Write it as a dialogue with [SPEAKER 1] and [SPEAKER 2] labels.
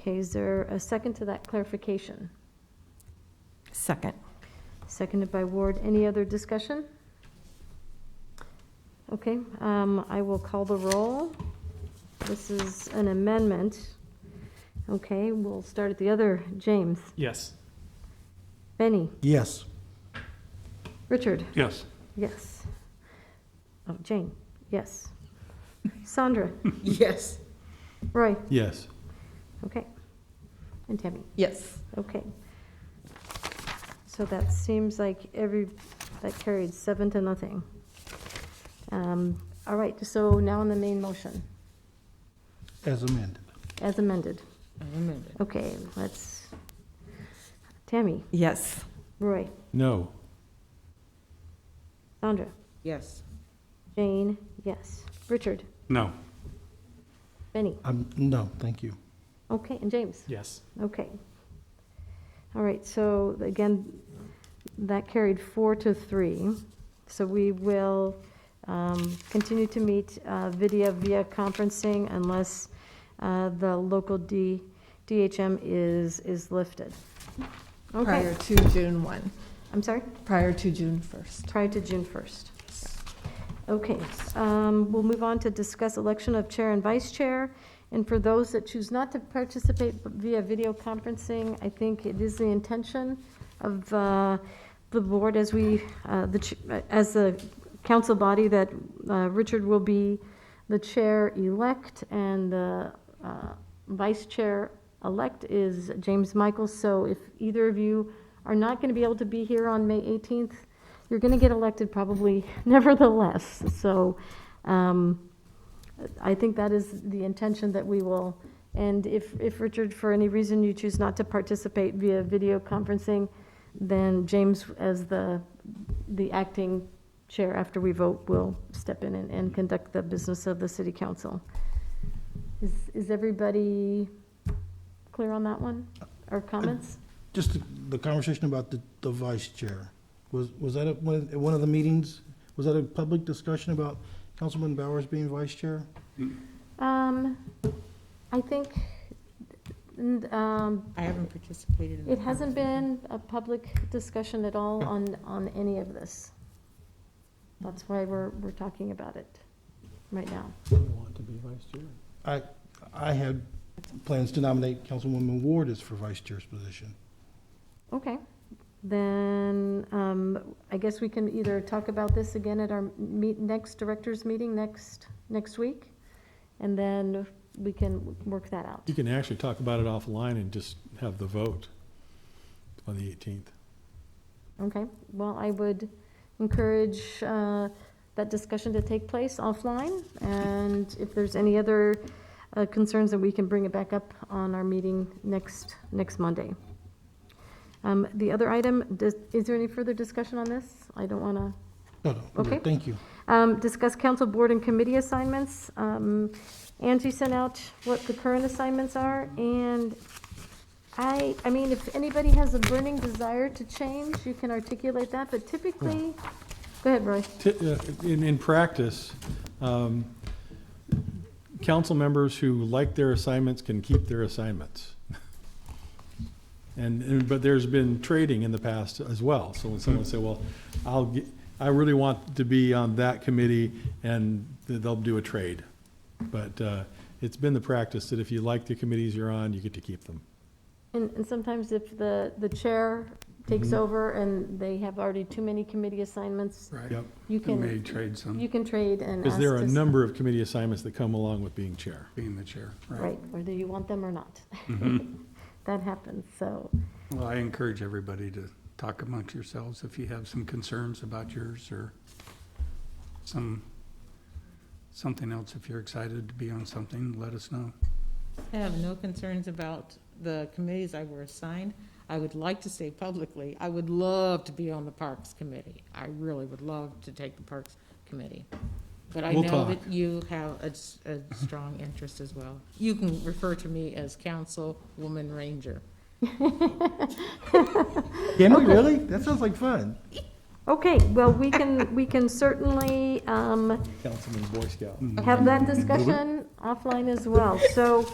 [SPEAKER 1] Okay, is there a second to that clarification?
[SPEAKER 2] Second.
[SPEAKER 1] Seconded by Ward. Any other discussion? Okay, um, I will call the roll. This is an amendment. Okay, we'll start at the other. James,
[SPEAKER 3] Yes.
[SPEAKER 1] Benny,
[SPEAKER 4] Yes.
[SPEAKER 1] Richard,
[SPEAKER 3] Yes.
[SPEAKER 1] yes. Oh, Jane, yes. Sandra,
[SPEAKER 2] Yes.
[SPEAKER 1] Roy,
[SPEAKER 4] Yes.
[SPEAKER 1] okay. And Tammy.
[SPEAKER 2] Yes.
[SPEAKER 1] Okay. So that seems like every, that carried seven to nothing. Um, All right, so now on the main motion,
[SPEAKER 4] As amended.
[SPEAKER 1] as amended. Okay, let's, Tammy,
[SPEAKER 2] Yes.
[SPEAKER 1] Roy,
[SPEAKER 4] No.
[SPEAKER 1] Sandra,
[SPEAKER 2] Yes.
[SPEAKER 1] Jane, yes. Richard,
[SPEAKER 3] No.
[SPEAKER 1] Benny,
[SPEAKER 4] Um, no, thank you.
[SPEAKER 1] okay, and James,
[SPEAKER 3] Yes.
[SPEAKER 1] okay. All right, so again, that carried four to three. So we will um, continue to meet uh, video via conferencing unless uh, the local D, DHM is, is lifted.
[SPEAKER 5] prior
[SPEAKER 1] Okay,
[SPEAKER 5] to June 1,
[SPEAKER 1] I'm sorry,
[SPEAKER 5] prior to June 1st.
[SPEAKER 1] prior to June 1st. Okay, um, we'll move on to discuss election of chair and vice chair. And for those that choose not to participate via video conferencing, I think it is the intention of uh, the board as we, uh, the ch- as the council body, that uh, Richard will be the chair-elect and the uh, vice chair-elect is James Michaels. So if either of you are not going to be able to be here on May 18th, you're going to get elected probably nevertheless. So um, I think that is the intention that we will. And if, if Richard, for any reason you choose not to participate via video conferencing, then James, as the, the acting chair after we vote, will step in and, and conduct the business of the city council. Is, is everybody clear on that one? Or comments?
[SPEAKER 4] Just the- the conversation about the, the vice chair. Was, was that at one, of- at one of the meetings? Was that a public discussion about Councilman Bowers being vice chair?
[SPEAKER 1] Um, I think, n- um,
[SPEAKER 2] I haven't participated in
[SPEAKER 1] It hasn't been a public discussion at all on, on any of this. That's why we're, we're talking about it right now.
[SPEAKER 4] Didn't want to be vice chair. I, I had plans to nominate Councilwoman Ward as for vice chair's position.
[SPEAKER 1] Okay, then, um, I guess we can either talk about this again at our meet, next directors' meeting next, next week, and then we can work that out.
[SPEAKER 6] You can actually talk about it offline and just have the vote on the 18th.
[SPEAKER 1] Okay, well, I would encourage uh, that discussion to take place offline, and if there's any other uh, concerns, then we can bring it back up on our meeting next, next Monday. Um, The other item, does- is there any further discussion on this? I don't want to
[SPEAKER 4] No, no, we're good.
[SPEAKER 1] Okay.
[SPEAKER 4] thank you.
[SPEAKER 1] um, Discuss council board and committee assignments. Um, Angie sent out what the current assignments are, and I, I mean, if anybody has a burning desire to change, you can articulate that, but typically, go ahead, Roy.
[SPEAKER 6] Ti- uh, In, in practice, um, council members who like their assignments can keep their assignments. And, and- but there's been trading in the past as well. So when someone said, well, I'll, ge- I really want to be on that committee, and th- they'll do a trade. But uh, it's been the practice that if you like the committees you're on, you get to keep them.
[SPEAKER 1] And, and sometimes if the, the chair takes
[SPEAKER 6] Mm-hmm.
[SPEAKER 1] over and they have already too many committee assignments,
[SPEAKER 3] Right.
[SPEAKER 6] Yep.
[SPEAKER 1] you
[SPEAKER 3] And may
[SPEAKER 1] can,
[SPEAKER 3] trade some,
[SPEAKER 1] you can trade and ask.
[SPEAKER 6] Because there are a
[SPEAKER 1] to-
[SPEAKER 6] number of committee assignments that come along with being chair.
[SPEAKER 3] being the chair.
[SPEAKER 1] Right, whether you want them or not.
[SPEAKER 6] Mm-hmm.
[SPEAKER 1] That happens, so,
[SPEAKER 3] Well, I encourage everybody to talk amongst yourselves if you have some concerns about yours or some, something else. If you're excited to be on something, let us know.
[SPEAKER 7] I have no concerns about the committees I were assigned. I would like to say publicly, I would love to be on the Parks Committee. I really would love to take the Parks Committee. But I
[SPEAKER 6] We'll
[SPEAKER 7] know
[SPEAKER 6] talk.
[SPEAKER 7] that you have a, s- a strong interest as well. You can refer to me as Councilwoman Ranger.
[SPEAKER 4] Can we really? That sounds like fun.
[SPEAKER 1] okay, well, we can, we can certainly, um,
[SPEAKER 6] Councilman Boy Scout.
[SPEAKER 1] have that discussion offline as well. So